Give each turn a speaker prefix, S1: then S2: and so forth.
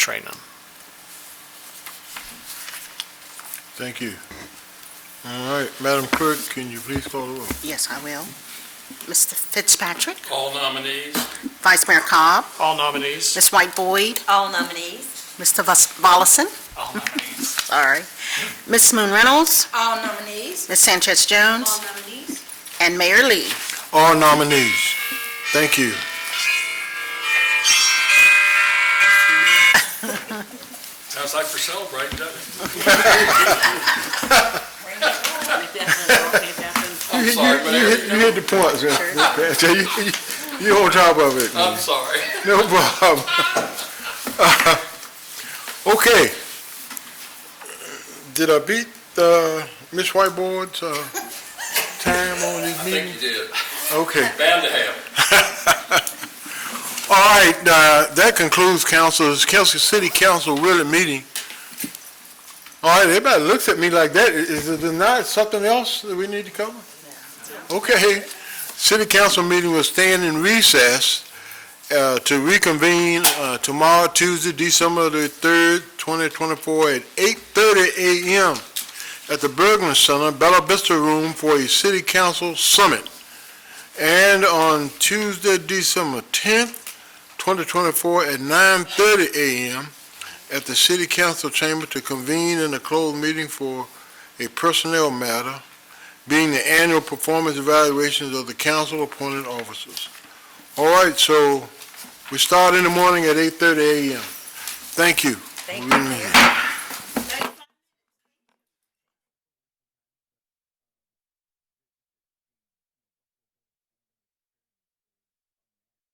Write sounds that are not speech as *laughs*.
S1: train them.
S2: Thank you. All right, Madam Clerk, can you please call the roll?
S3: Yes, I will. Mr. Fitzpatrick,
S4: All nominees.
S3: Vice Mayor Cobb,
S1: All nominees.
S3: Ms. White Boyd,
S5: All nominees.
S3: Mr. Vas- Volleson,
S4: All nominees.
S3: sorry, Ms. Moon Reynolds,
S5: All nominees.
S3: Ms. Sanchez Jones,
S5: nominees.
S3: and Mayor Lee.
S2: All nominees. Thank you.
S4: Sounds like we're celebrating, doesn't it? I'm
S2: You-
S4: sorry, but
S2: You hit, you hit the points, *laughs* man. You- you- you on top of it, man.
S4: I'm sorry.
S2: No problem. *laughs* Okay. Did I beat, uh, Ms. Whiteboard's, uh, time on this
S4: I
S2: meeting?
S4: think you did.
S2: Okay.
S4: Bound to happen.
S2: All right, uh, that concludes council's, council, city council really meeting. All right, everybody looks at me like that. I- Is there not something else that we need to cover? Okay, city council meeting will stand in recess, uh, to reconvene, uh, tomorrow, Tuesday, December the third, twenty twenty-four, at eight thirty AM at the Bergman Center, Bella Vista Room for a city council summit. And on Tuesday, December tenth, 2024 at 9:30 a.m. at the City Council Chamber to convene in a closed meeting for a personnel matter, being the annual performance evaluations of the council-appointed officers. All right, so we start in the morning at 8:30 a.m. Thank you.
S5: Thank you, Mayor.